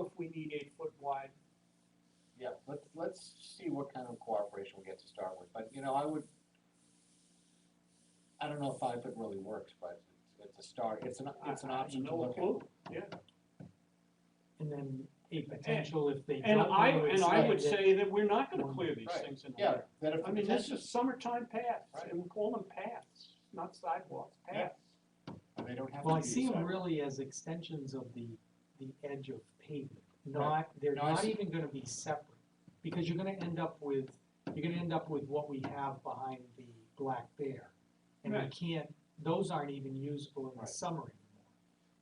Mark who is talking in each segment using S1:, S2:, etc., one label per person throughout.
S1: if we need eight foot wide.
S2: Yeah, let's, let's see what kind of cooperation we get to start with, but, you know, I would, I don't know if five foot really works, but it's a start, it's an, it's an
S1: I- I
S2: option to
S1: uh, know
S2: look
S1: it
S2: at.
S1: will.
S3: And then a potential if they
S1: And
S3: don't
S1: I,
S3: want to
S1: and I would
S3: expand it.
S1: say that we're not gonna clear these
S2: Right,
S1: things in a
S2: Yeah,
S1: hurry.
S2: that if,
S1: I mean, this is summertime paths,
S2: Right.
S1: and we call them paths, not sidewalks,
S2: Yeah.
S1: paths.
S2: they don't have to be.
S3: Well, I see them
S2: sidewalk.
S3: really as extensions of the, the edge of pavement,
S2: Right.
S3: not, they're
S2: No, I
S3: not
S2: see.
S3: even gonna be separate. Because you're gonna end up with, you're gonna end up with what we have behind the Black Bear. And we
S1: Right.
S3: can't, those aren't even usable in the
S2: Right.
S3: summer anymore.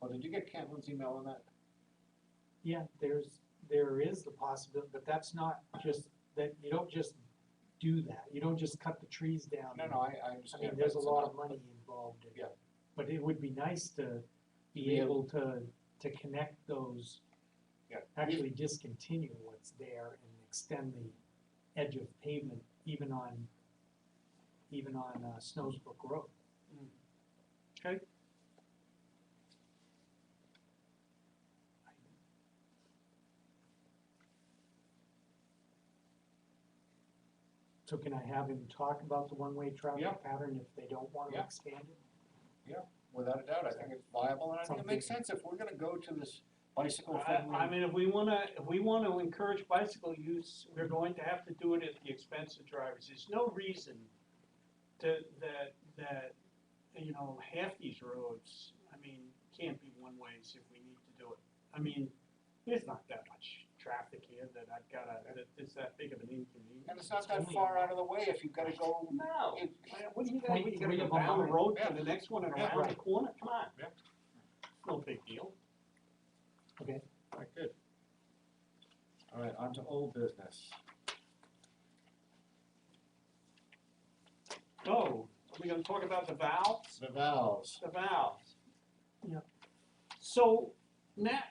S2: Well, did you get Cantlin's email on that?
S3: Yeah, there's, there is the possibility, but that's not just, that, you don't just do that, you don't just cut the trees down.
S2: No,
S3: and
S2: no, I, I
S3: I
S2: understand.
S3: mean,
S2: but
S3: there's a
S2: it's
S3: lot
S2: an
S3: of money involved in it.
S2: Yeah.
S3: But it would be nice to be
S2: Be
S3: able to, to connect those.
S2: Yeah.
S3: Actually discontinue what's there and extend the edge of pavement even on, even on uh, Snowsbrook Road.
S2: Mm.
S1: Okay,
S3: So can I have him talk about the one-way
S2: Yeah.
S3: traffic pattern if they don't wanna
S2: Yeah.
S3: expand it?
S2: Without a doubt, I think it's viable, and I think it makes sense if we're gonna go to this bicycle
S1: I, I
S2: friendly.
S1: mean, if we wanna, if we wanna encourage bicycle use, we're going to have to do it at the expense of drivers. There's no reason to, that, that, you know, half these roads, I mean, can't be one ways if we need to do it. I mean, there's not that much traffic here that I've gotta, that it's that big of an inconvenience.
S2: And it's not that far out of the way if you've gotta go.
S1: No.
S2: it-
S1: Man, What do you got, you gotta
S3: Twenty-three
S1: go
S3: of a
S1: down the
S3: mile.
S1: road
S2: Yeah.
S1: to the next one and
S2: Yeah.
S1: around the
S3: Right.
S1: corner, come on.
S2: Yeah.
S1: No big deal.
S3: Okay,
S2: Alright, good. Alright, on to old business.
S1: So, Oh, are we gonna talk about the valves?
S2: The valves.
S1: The valves.
S3: Yeah.
S1: So, now,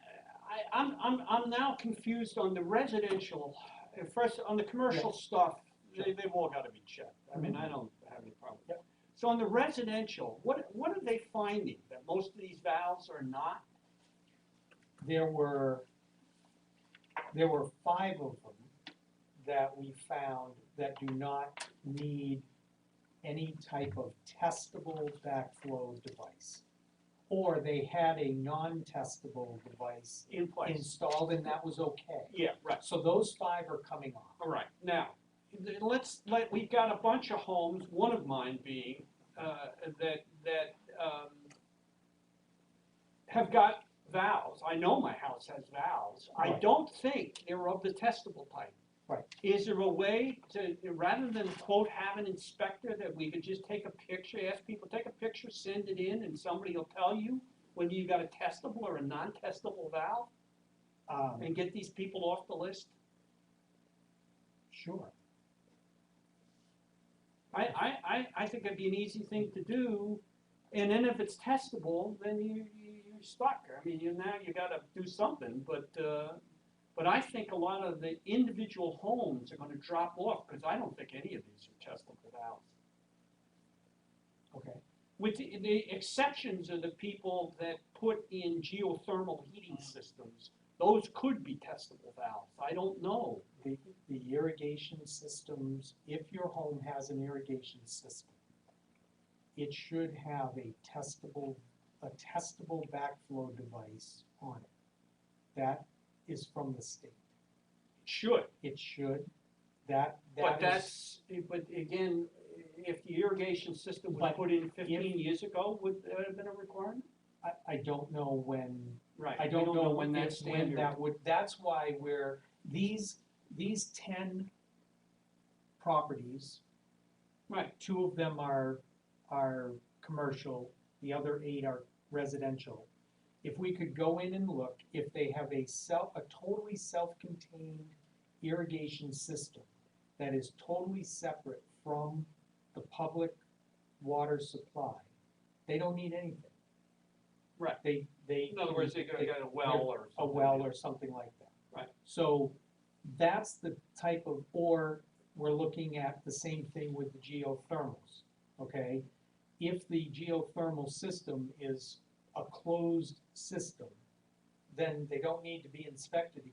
S1: I, I'm, I'm, I'm now confused on the residential, uh, first, on the commercial stuff, they, they've all gotta be checked, I mean, I don't have any problem. with that. So on the residential, what, what are they finding, that most of these valves are not?
S3: there were, there were five of them that we found that do not need any type of testable backflow device. Or they had a non-testable device
S1: In place?
S3: installed and that was okay.
S1: Yeah, right.
S3: So those five are coming off.
S1: All right, now, th- let's, let, we've got a bunch of homes, one of mine being, uh, that, that, um, have got valves, I know my house has valves, I
S3: Right.
S1: don't think they're of the testable type.
S3: Right.
S1: Is there a way to, rather than quote, have an inspector, that we could just take a picture, ask people, take a picture, send it in, and somebody will tell you whether you got a testable or a non-testable valve,
S3: Um,
S1: and get these people off the list?
S3: Um, Sure.
S1: I, I, I, I think it'd be an easy thing to do, and then if it's testable, then you, you- you're stuck. I mean, you, now you gotta do something, but, uh, but I think a lot of the individual homes are gonna drop off, because I don't think any of these are testable valves.
S3: Okay,
S1: With the, the exceptions are the people that put in geothermal heating systems, those could be testable valves, I don't know.
S3: the, the irrigation systems, if your home has an irrigation system, it should have a testable, a testable backflow device on it. That is from the state.
S1: Should,
S3: It should, that,
S1: But
S3: that is,
S1: that's, but again, if the irrigation system was
S3: But
S1: put in fifteen years ago, would that have been a requirement?
S3: I, I don't know when
S1: Right.
S3: I
S1: we
S3: don't know
S1: when that
S3: When
S1: standard.
S3: that would, that's why we're, these, these ten properties.
S1: Right.
S3: Two of them are, are commercial, the other eight are residential. If we could go in and look, if they have a self, a totally self-contained irrigation system that is totally separate from the public water supply, they don't need anything.
S1: Right.
S3: They, they.
S1: In other words, they got, got a well or
S3: A
S1: something.
S3: well or something like that.
S1: Right.
S3: So that's the type of, or we're looking at the same thing with the geothermals, okay? If the geothermal system is a closed system, then they don't need to be inspected